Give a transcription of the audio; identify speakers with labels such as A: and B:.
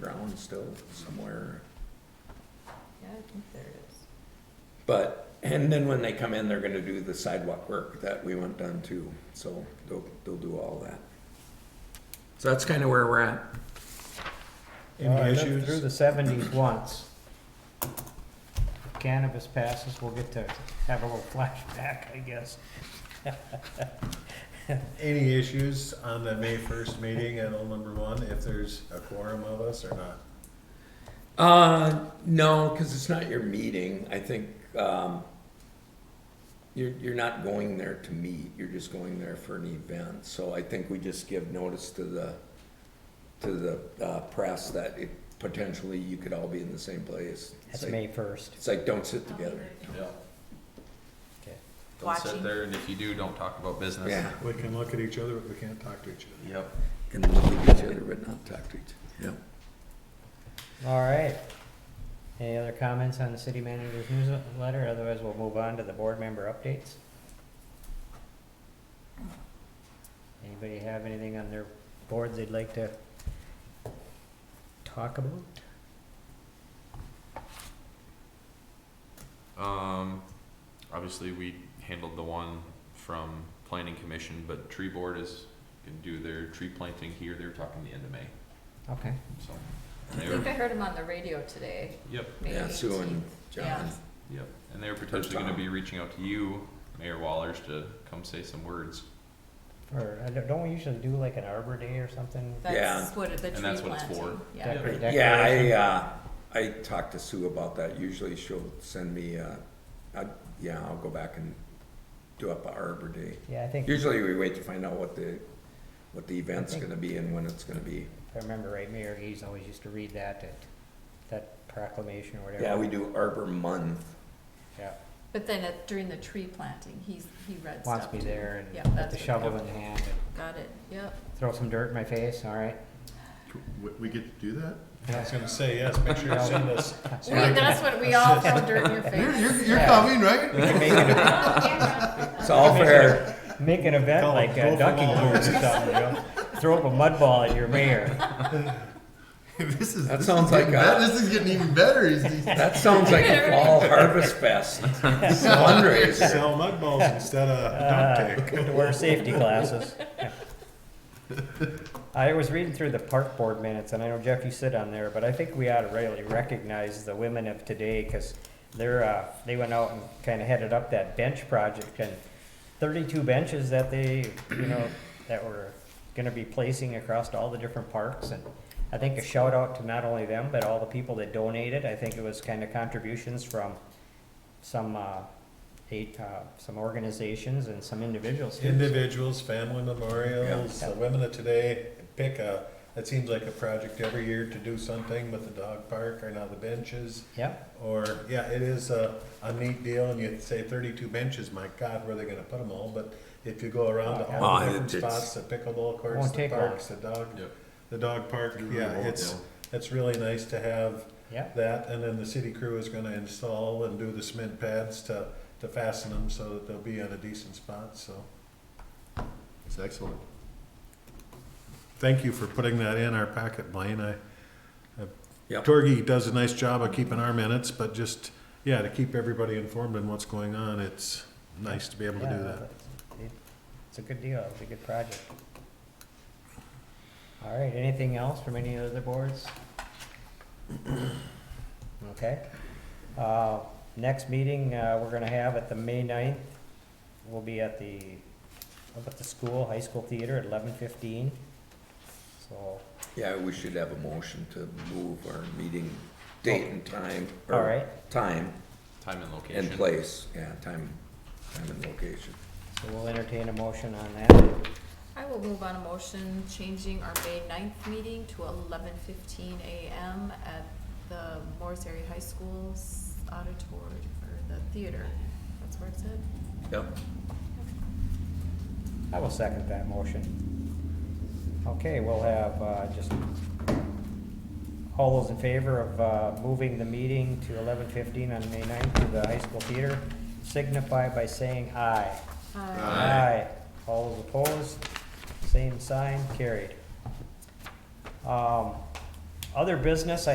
A: on the stove somewhere.
B: Yeah, I think there is.
A: But, and then when they come in, they're gonna do the sidewalk work that we want done too, so they'll, they'll do all that. So that's kinda where we're at.
C: Well, I
D: Any
C: lived Through the
D: issues?
C: seventies once. If Cannabis passes, we'll get to have a little flashback, I guess.
D: Any issues on the May first meeting at all number one, if there's a quorum of us or not?
A: Uh, no, because it's not your meeting. I think um, you're you're not going there to meet. You're just going there for an event. So I think we just give notice to the to the uh, press that it potentially you could all be in the same place. It's
C: That's
A: like,
C: May first.
A: It's like don't sit together.
E: Yeah.
C: Okay.
E: Don't
B: Watching.
E: sit there, and if you do, don't talk about business.
A: Yeah,
D: We can look at each other, but we can't talk to each other.
E: Yep.
A: can look at each other but not talk to each. other.
C: All right. Any other comments on the city manager's newsletter? Otherwise, we'll move on to the board member updates. Anybody have anything on their boards they'd like to talk about?
E: Um, obviously, we handled the one from planning commission, but tree board is gonna do their tree planting here. They were talking the end of May,
C: Okay.
E: so.
B: I
E: they were-
B: think I heard him on the radio today,
E: Yep,
A: Yeah,
B: May
A: yeah. Sue and
B: 18th.
A: John.
B: Yeah.
E: yep. And they were potentially gonna be reaching out to you, Mayor Wallers, to come say some words.
C: Or, I don't- don't we usually do like an Arbor Day or something?
B: That's what, it- the
E: And
B: tree
E: that's what it's for.
B: planting, yeah.
C: Dec-
A: Yeah, I
C: declaration?
A: uh, I talked to Sue about that. Usually she'll send me. Uh, I, yeah, I'll go back and do up a Arbor Day.
C: Yeah, I think, if
A: Usually we wait to find out what the, what the event's
C: Okay.
A: gonna be and when it's gonna be.
C: I remember right, Mayor Gees always used to read that, that, that proclamation or whatever.
A: Yeah, we do Arbor Month.
C: Yeah,
B: But then at, during the tree planting, he's, he read stuff.
C: wants me
B: too.
C: there
B: Yeah,
C: and with
B: that's
C: the
B: what-
C: shovel in hand, and
B: Got it, yep.
C: throw some dirt in my face, all right?
F: We, we get to do that?
D: I was gonna say, yes, make sure you send us.
B: We, that's what, we all throw dirt in your
F: You're,
B: face.
F: you're, you're
C: Yeah.
F: coming, right?
A: It's all fair.
C: Make an event
D: Call
C: like
D: it
C: uh,
D: Go for
C: ducking
D: Walrus.
C: tours or something, you know? Throw up a mud ball at your mayor.
F: This is,
A: That
F: this
A: sounds
F: is getting
A: like a-
F: bet- This is getting even better. He's- he's-
A: That sounds like a fall harvest fest fundraiser.
D: Sell mud balls instead
C: Uh,
D: of duct tape.
C: Good to wear safety glasses. I was reading through the park board minutes, and I know Jeff, you sit on there, but I think we ought to really recognize the women of today, because they're, uh, they went out and kind of headed up that bench project, and thirty-two benches that they, you know, that were gonna be placing across all the different parks, and I think a shout out to not only them, but all the people that donated, I think it was kind of contributions from some, uh, eight, uh, some organizations and some individuals. too.
D: Individuals, family memorials,
C: Yeah.
D: the women of today, pick a, it seems like a project every year to do something with the dog park or now the benches.
C: Yep.
D: Or, yeah, it is a, a neat deal, and you say thirty-two benches, my God, where are they gonna put them all? But if you go around to all
A: Oh,
D: the different
A: it's-
D: spots, the pickleball courts,
C: Won't
D: the
C: take long.
D: parks, the dog,
E: Yep.
D: the dog park,
F: Get rid of
D: yeah,
F: all
D: it's,
F: them.
D: it's really nice to have
C: Yeah.
D: that, and then the city crew is gonna install and do the cement pads to, to fasten them so that they'll be in a decent spot, so.
F: It's excellent.
D: Thank you for putting that in our packet, Blaine. I, I-
A: Yep.
D: Torgy does a nice job of keeping our minutes, but just, yeah, to keep everybody informed on what's going on, it's nice to be able to
C: Yeah,
D: do that.
C: it- It's a good deal, it's a good project. All right, anything else from any other boards? Okay. Uh, Next meeting uh, we're gonna have at the May 9th will be at the, up at the school, high school theater at eleven fifteen. So,
A: Yeah, we should have a motion to move our meeting date and time. or
C: all right,
A: Time
E: Time and location.
A: and place, yeah, time, time and location.
C: so we'll entertain a motion on that.
B: I will move on a motion changing our May 9th meeting to eleven fifteen AM at the Morris Area High School's auditorium, or the theater, that's where it's at.
A: Yep.
C: I will second that motion. Okay, we'll have, uh, just, all those in favor of, uh, moving the meeting to eleven fifteen on May 9th to the high school theater, signify by saying aye.
B: Uh,
F: Aye.
C: All those opposed, same sign, carried. Um, Other business,